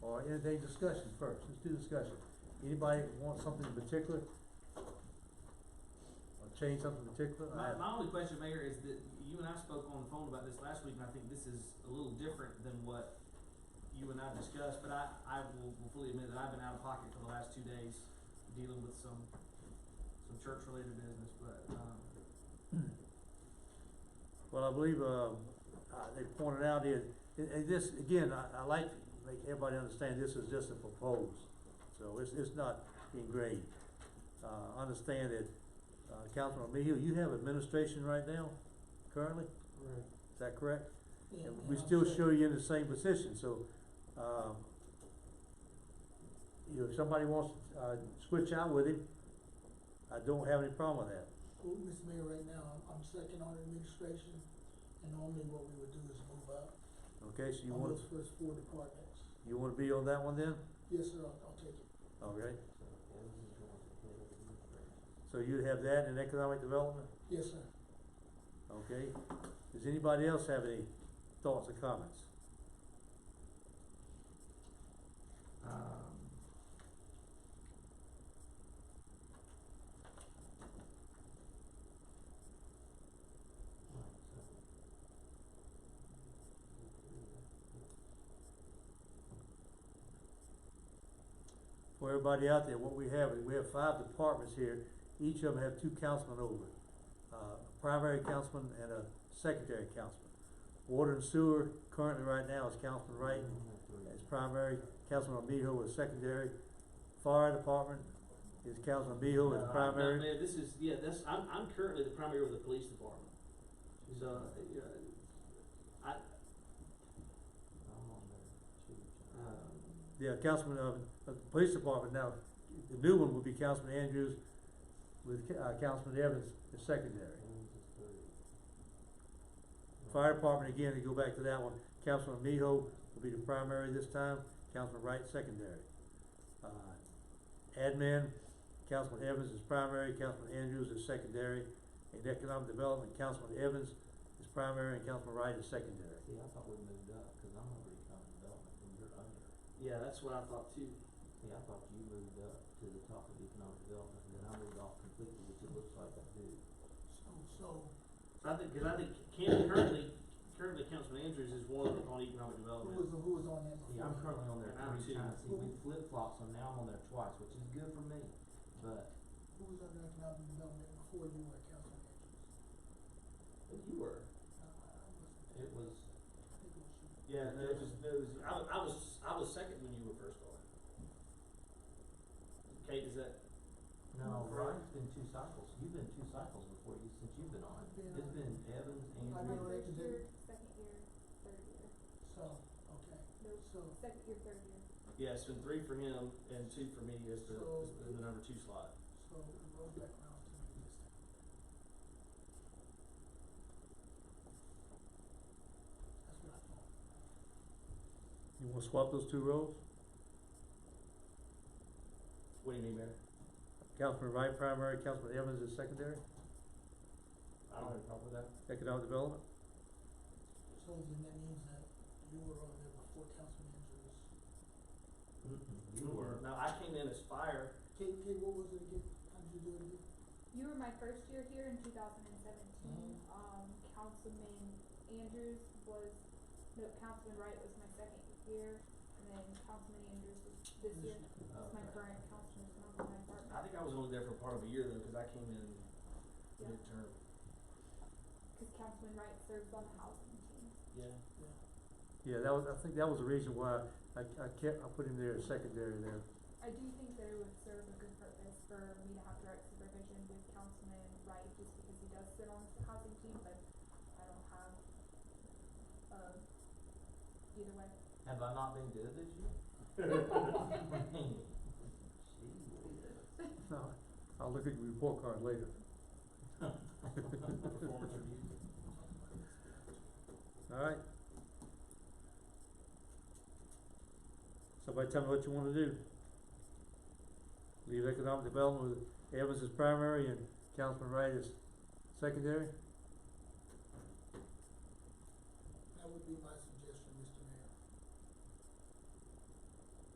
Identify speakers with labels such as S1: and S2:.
S1: and they discussion first, let's do discussion. Anybody want something in particular? Or change something in particular?
S2: My,
S1: I-
S2: my only question, Mayor, is that you and I spoke on the phone about this last week, and I think this is a little different than what you and I discussed, but I, I will, will fully admit that I've been out of pocket for the last two days dealing with some, some church-related business, but, um,
S1: Well, I believe, uh, uh, they pointed out here, and, and this, again, I, I like to make everybody understand this is just a proposed. So it's, it's not engraved. Uh, understand that, uh, Councilman Mayhew, you have administration right now, currently,
S3: Right.
S1: is that correct?
S3: Yeah,
S1: And
S3: and
S1: we
S3: I'm
S1: still
S3: sure-
S1: show you in the same position, so, um, you know, if somebody wants, to, uh, switch out with him, I don't have any problem with that.
S3: Well, Mr. Mayor, right now, I'm, I'm second on administration, and normally what we would do is move up
S1: Okay, so you
S3: on
S1: want,
S3: those first four departments.
S1: you wanna be on that one then?
S3: Yes, sir, I'll, I'll take it.
S1: Okay, so you have that in economic development,
S3: Yes, sir.
S1: okay? Does anybody else have any thoughts or comments?
S4: Um,
S1: For everybody out there, what we have is, we have five departments here, each of them have two councilmen over it. Uh, a primary councilman and a secondary councilman. Water and sewer currently right now is Councilman Wright as primary, Councilman Miho is secondary. Fire department is Councilman Miho as
S2: uh,
S1: primary.
S2: Mayor, this is, yeah, that's, I'm, I'm currently the primary of the police department, so, uh, you know, I, um,
S1: Yeah, Councilman, uh, of the police department now, the new one would be Councilman Andrews with, Ca- uh, Councilman Evans as secondary. Fire department, again, to go back to that one, Councilman Miho will be the primary this time, Councilman Wright secondary. Uh, Admin, Councilman Evans is primary, Councilman Andrews is secondary, and economic development, Councilman Evans is primary and Councilman Wright is secondary.
S4: See, I thought we moved up, cause I'm over economic development and you're under.
S2: yeah, that's what I thought too.
S4: See, I thought you moved up to the top of economic development and then I moved off completely, which it looks like I do.
S3: So, so,
S2: So I think, cause I think Cam currently, currently Councilman Andrews is one on economic
S3: who
S2: development.
S3: was, who was on that
S4: See,
S3: before?
S4: I'm currently on there
S2: And Oh, I'm
S4: three
S2: two.
S4: times, see, we flip flops, so now I'm on there twice, which is good for me, but
S3: Who was under economic development before you were council manager?
S4: But you were.
S3: I, I wasn't there.
S4: It was,
S3: I think it was you.
S2: Yeah, no, it was, no, it was, I, wa- I was, I was second when you were first on. Kate, is that,
S4: no,
S3: Right.
S4: Ryan's been two cycles. You've been two cycles before you, since you've been on.
S3: I've been
S4: It's
S3: on.
S4: been Evans,
S3: I've been
S4: Andrew.
S3: on.
S5: First year, second year, third year.
S3: So, okay,
S5: No,
S3: so,
S5: second year, third year.
S2: yeah, it's been three for him and two for me as the,
S3: So-
S2: as the- the number two slot.
S3: so it rolls back around to me this time. That's what I thought.
S1: You wanna swap those two roles?
S2: What do you mean, Mayor?
S1: Councilman Wright primary, Councilman Evans is secondary,
S2: I don't have a problem with that.
S1: economic development?
S3: So then that means that you were on there before council managers.
S4: Mm-mm, You were.
S2: No, I came in as fire,
S3: Kate, Kate, what was it again? How did you do it again?
S5: You were my first year here in two thousand and seventeen. Um, Councilman Andrews was, no, Councilman Wright was my second year, and then Councilman Andrews was this year. That's my
S4: Okay.
S5: current councilman, so I'm on my department.
S2: I think I was only there for part of a year though, cause I came in
S5: Yeah.
S2: midterm.
S5: Cause Councilman Wright serves on the housing team.
S2: Yeah.
S3: Yeah.
S1: Yeah, that was, I think that was the reason why I, I kept, I put him there as secondary there.
S5: I do think that it would serve a good purpose for me to have direct supervision with Councilman Wright, just because he does sit on the housing team, but I don't have, uh, either way.
S4: Have I not been good this year? Gee whiz.
S1: No, I'll look at your report card later.
S2: Performance review.
S1: Alright. Somebody tell me what you wanna do. Leave economic development with Evans as primary and Councilman Wright as secondary?